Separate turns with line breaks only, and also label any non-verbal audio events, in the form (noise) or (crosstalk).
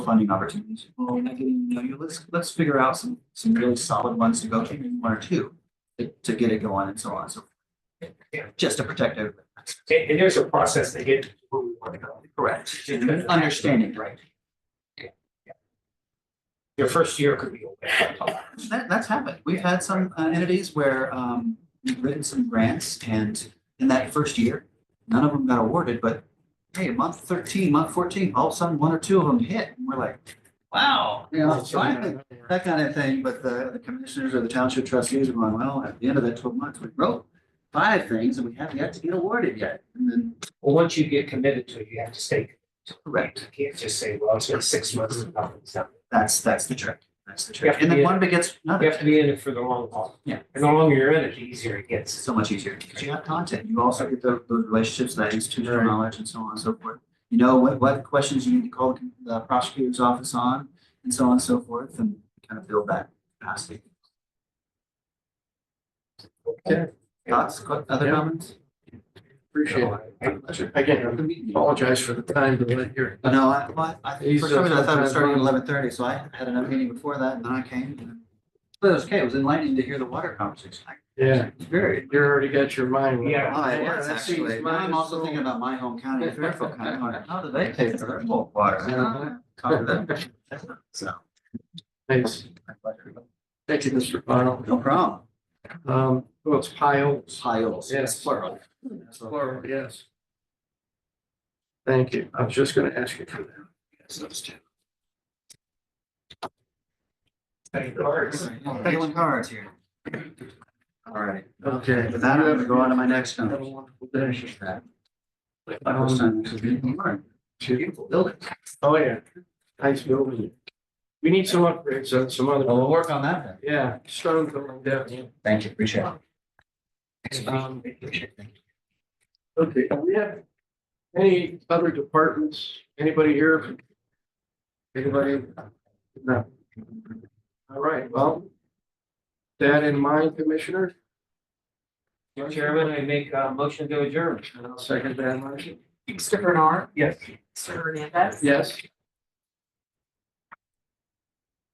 funding opportunities. Well, I didn't even know you. Let's, let's figure out some, some really solid ones to go to, maybe one or two, to, to get it going and so on, so.
Yeah.
Just to protect everybody.
And, and there's a process to get to where we want to go.
Correct. Understanding, right?
Your first year could be. a win.
That, that's happened. We've had some uh, entities where, um, we've written some grants and in that first year, none of them got awarded, but hey, month thirteen, month fourteen, all of a sudden, one or two of them hit, and we're like, wow, you know, finally, that kind of thing, but the the commissioners or the township trustees are going, well, at the end of that twelve months, we wrote five things and we haven't yet to get awarded yet. And then,
Well, once you get committed to it, you have to stay. committed to it.
correct,
You can't just say, well, it's been six months and nothing's happened.
that's, that's the trick, that's the
You
trick.
have to
And then
be-
one begets
You
another,
have to be in it for the long haul.
Yeah.
And the longer you're in it, the easier it
it's
gets.
so much easier, because you have content, you also get the, the relationships, that institutional
Right.
knowledge and so on and so forth. You know, what, what questions you need to call the prosecutor's office on, and so on and so forth, and kind of build that capacity. Thoughts, que- other
Yeah.
comments?
Appreciate
So, I-
it. Again, I apologize for the time delay here.
Oh, No, I, well, I, think for
He's,
some reason I
uh,
thought it was starting at
sometimes-
eleven thirty, so I had another meeting before that, and then I came. and- But it was okay, it was enlightening to hear the water conversation. I-
Yeah,
it's Very.
you already got your mind.
Yeah.
Oh, it
Yeah,
was
that seems
actually. Now
mine
I'm
is
also
so-
thinking about my home county, of Fairfield County, I'm like, how do
(laughs)
they pay for their bulk water?
Uh-huh.
Talk to them. So.
Thanks.
my pleasure.
Thank you, Mr. Pyle.
No problem.
Um, well, it's piles.
Piles,
Yes.
it's plural.
Plural, yes. Thank you. I was just gonna ask you for that.
Yes, those two.
Thank you. Works.
Dealing cards here. All right,
Okay.
with that, I'm gonna go on to my next
Have
one.
a wonderful day. Um,
My first time, this is beautiful. Beautiful building.
Oh, yeah. Nice building. We need some upgrades on some
Well, we'll
other,
work on that then.
yeah, stone going down.
Thank you, appreciate
it. Um, Okay, do we have any other departments, anybody here? Anybody? No. All right, well. That in mind, Commissioner,
Chairman, I make a motion to adjourn.
and I'll second that motion.
Mr. Bernard,
Yes.
Mr. Hernandez.
Yes,